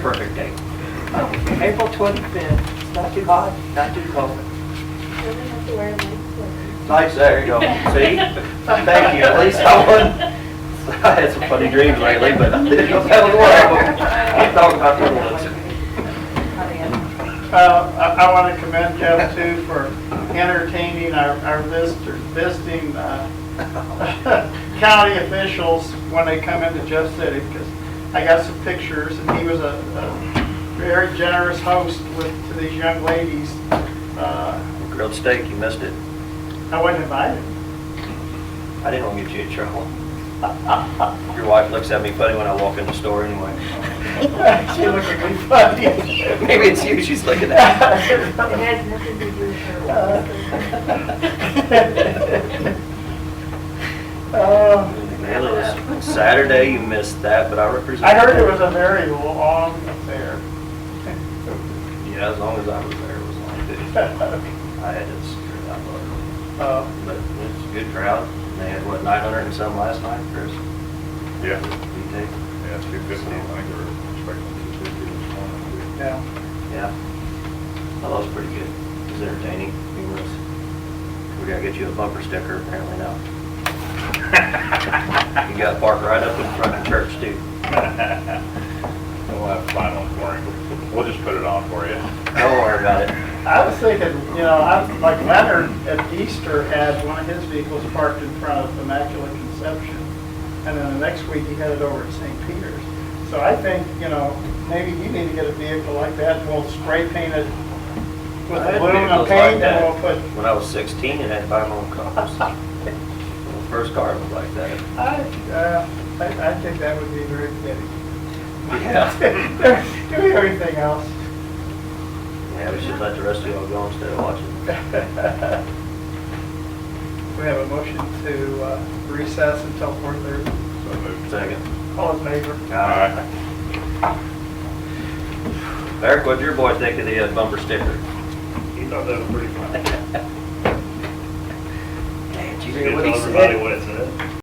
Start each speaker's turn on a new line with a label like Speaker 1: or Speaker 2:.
Speaker 1: concert date. Oh, April 25th, it's not too hot, not too cold.
Speaker 2: Doesn't have to wear a nice clothes.
Speaker 1: Nice there, you go, see? Thank you, at least I wasn't, I had some funny dreams lately, but I didn't know that was one of them. I thought about the ones.
Speaker 3: Uh, I I want to commend Jeff too for entertaining our our visitor- visiting uh, county officials when they come into Jeff City, because I got some pictures, and he was a a very generous host with, to these young ladies. Uh,
Speaker 1: Grilled steak, you missed it.
Speaker 3: I wasn't invited.
Speaker 1: I didn't want to get you in trouble. Your wife looks at me funny when I walk in the store anyway.
Speaker 3: She looked at me funny.
Speaker 1: Maybe it's you she's looking at.
Speaker 2: It has nothing to do with her.
Speaker 3: Uh,
Speaker 1: Man, it was Saturday, you missed that, but I represented.
Speaker 3: I heard it was a very long affair.
Speaker 1: Yeah, as long as I was there, it was long, too. I had to secure that one.
Speaker 3: Uh,
Speaker 1: But it's a good crowd. And They had, what, 900 and some last night, Chris?
Speaker 4: Yeah,
Speaker 1: You take?
Speaker 4: yeah, two fifty, I think we're expecting two fifty this morning.
Speaker 3: Yeah.
Speaker 1: Yeah. That was pretty good. It was entertaining, humorous. We gotta get you a bumper sticker apparently now. You gotta park right up in front of church, too.
Speaker 4: We'll have to find one for him. We'll just put it on for you.
Speaker 1: Don't worry about it.
Speaker 3: I was thinking, you know, I, like Leonard at Easter had one of his vehicles parked in front of Immaculate Conception. And then the next week he headed over to St. Peter's. So I think, you know, maybe you need to get a vehicle like that and we'll spray paint it with
Speaker 1: I had
Speaker 3: aluminum
Speaker 1: vehicles like
Speaker 3: paint
Speaker 1: that
Speaker 3: and we'll put,
Speaker 1: When I was 16 and had to buy my own cars. The First car was like that.
Speaker 3: I, uh, I, I think that would be very fitting.
Speaker 1: Yeah.
Speaker 3: Do everything else.
Speaker 1: Yeah, we should let the rest of y'all go instead of watching.
Speaker 3: We have a motion to uh, recess until four thirty.
Speaker 4: So moved.
Speaker 1: Second.
Speaker 3: All in favor?
Speaker 4: All right.
Speaker 1: Eric, what'd your boy think of the uh, bumper sticker?
Speaker 5: He thought that was pretty funny.
Speaker 1: Dad,
Speaker 5: He told everybody what it said.